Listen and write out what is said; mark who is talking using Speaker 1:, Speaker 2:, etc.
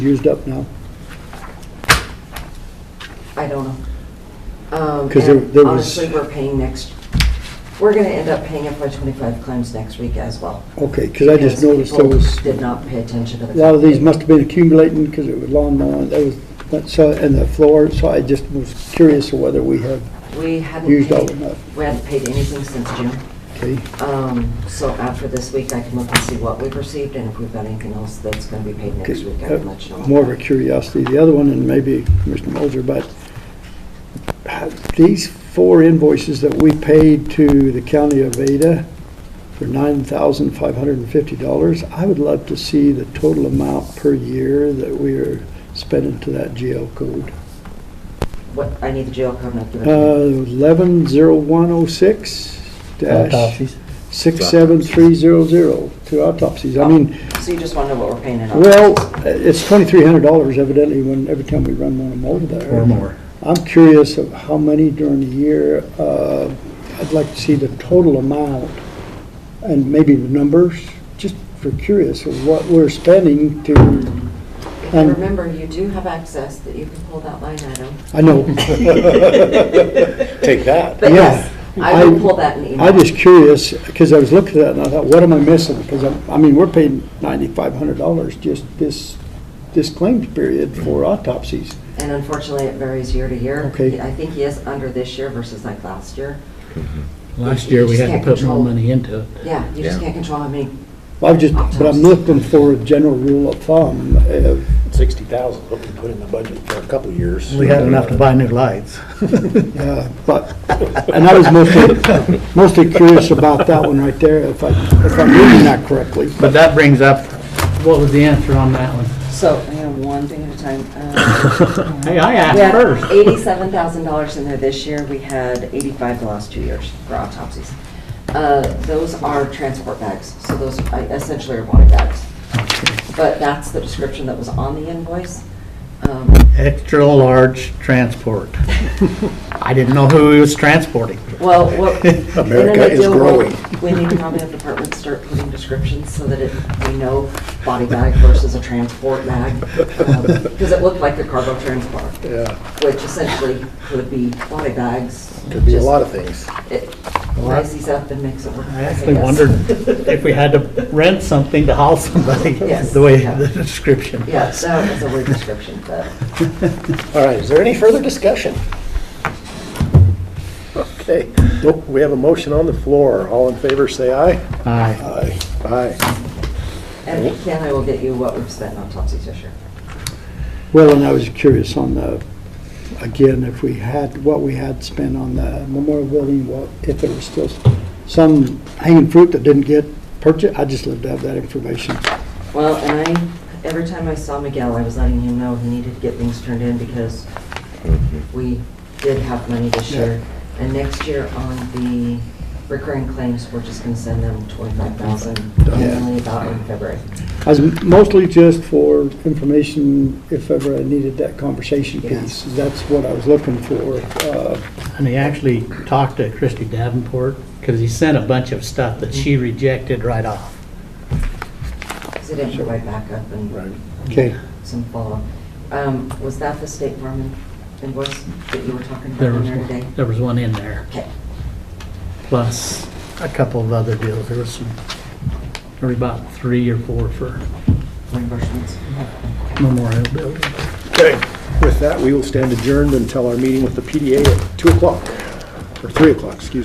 Speaker 1: used up now?
Speaker 2: I don't know. Um,
Speaker 1: 'Cause there-
Speaker 2: and
Speaker 1: there was-
Speaker 2: Honestly, we're paying next, we're gonna end up paying FY twenty-five claims next week as well.
Speaker 1: Okay, because I just
Speaker 2: because
Speaker 1: noticed there
Speaker 2: people
Speaker 1: was, a
Speaker 2: Did not pay attention to the.
Speaker 1: lot of these must have been accumulating because it was lawn mowing, there was, that so, and the floor, so I just was curious of whether we had
Speaker 2: We hadn't
Speaker 1: used all
Speaker 2: paid,
Speaker 1: of that.
Speaker 2: we hadn't paid anything since June.
Speaker 1: Okay,
Speaker 2: Um, so after this week, I can look and see what we've received and if we've got anything else that's gonna be paid next week, I
Speaker 1: okay.
Speaker 2: can let you know.
Speaker 1: Uh, More of a curiosity, the other one, and maybe Commissioner Moser, but uh, these four invoices that we paid to the county of Ada for nine thousand five hundred and fifty dollars, I would love to see the total amount per year that we are spending to that GL code.
Speaker 2: What, I need the jail coming up.
Speaker 1: Uh, Eleven zero one oh six dash
Speaker 3: Autopsies.
Speaker 1: six seven three zero zero, two autopsies. I mean,
Speaker 2: So you just wanna know what we're paying it on?
Speaker 1: well, it's twenty-three hundred dollars evidently when, every time we run one of them over there.
Speaker 3: or more.
Speaker 1: I'm curious of how many during the year. Uh, I'd like to see the total amount and maybe the numbers, just for curious of what we're spending to,
Speaker 2: If
Speaker 1: um,
Speaker 2: you remember, you do have access that you can pull that line item.
Speaker 1: I know.
Speaker 4: Take that.
Speaker 2: But
Speaker 1: Yeah.
Speaker 2: yes, I will pull that and email.
Speaker 1: I'm just curious, because I was looking at that and I thought, what am I missing? Because I'm, I mean, we're paying ninety-five hundred dollars just this, this claims period for autopsies.
Speaker 2: And unfortunately, it varies year to year.
Speaker 1: Okay.
Speaker 2: I think he is under this year versus like last year.
Speaker 3: Last year, we had to put more money into it.
Speaker 2: Yeah, you just
Speaker 4: Yeah.
Speaker 2: can't control how many.
Speaker 1: I've just, but I'm looking for a general rule of thumb. uh,
Speaker 4: Sixty thousand, what we put in the budget for a couple of years.
Speaker 3: We had enough to buy new lights.
Speaker 1: Yeah, uh, but, and I was mostly, mostly curious about that one right there, if I, if I'm reading that correctly.
Speaker 3: But that brings up, what was the answer on that one?
Speaker 2: So, hang on, one thing at a time. Uh,
Speaker 3: Hey, I
Speaker 2: We
Speaker 3: asked
Speaker 2: had
Speaker 3: first.
Speaker 2: eighty-seven thousand dollars in there this year. We had eighty-five the last two years for autopsies. Uh, Those are transport bags, so those I- essentially are body bags. But that's the description that was on the invoice. Um,
Speaker 3: Extra large transport. I didn't know who he was transporting.
Speaker 2: Well, what. in an
Speaker 4: America is
Speaker 2: ideal world,
Speaker 4: growing.
Speaker 2: We need to probably have departments start putting descriptions so that it, we know body bag versus a transport bag. Because it looked like a cargo transport,
Speaker 4: Yeah,
Speaker 2: which essentially could be body bags.
Speaker 4: could be a lot of things.
Speaker 2: It rises up and makes it work.
Speaker 3: I actually wondered if we had to rent something to haul somebody,
Speaker 2: Yes.
Speaker 3: the way the description.
Speaker 2: Yeah, that was a weird description, but.
Speaker 4: All right, is there any further discussion? Okay, we have a motion on the floor. All in favor, say aye.
Speaker 3: Aye.
Speaker 4: Aye. Aye.
Speaker 2: And Ken, I will get you what we've spent on Topsy Fisher.
Speaker 1: Well, and I was curious on the, again, if we had, what we had spent on the memorial building, what, if there was still some hanging fruit that didn't get purchased, I'd just love to have that information.
Speaker 2: Well, and I, every time I saw Miguel, I was letting him know he needed to get things turned in because we did have money this year. And next year on the recurring claims, we're just gonna send them twenty-five thousand, only about in February.
Speaker 1: I was mostly just for information, if ever I needed that conversation piece, that's what I was looking for. Uh,
Speaker 3: And he actually talked to Christy Davenport, because he sent a bunch of stuff that she rejected right off.
Speaker 2: Cause it didn't provide backup
Speaker 4: Right.
Speaker 2: and
Speaker 1: Okay,
Speaker 2: some follow-up. Um, was that the State Farm invoice that you were talking about
Speaker 3: There
Speaker 2: in
Speaker 3: was,
Speaker 2: there today?
Speaker 3: one- there was one in there.
Speaker 2: Okay,
Speaker 3: plus a couple of other deals. There was some, there were about three or four for
Speaker 2: reimbursements.
Speaker 3: Mm-hmm. Memorial Building.
Speaker 4: Okay, with that, we will stand adjourned until our meeting with the PDA at 2 o'clock, or 3 o'clock, excuse me.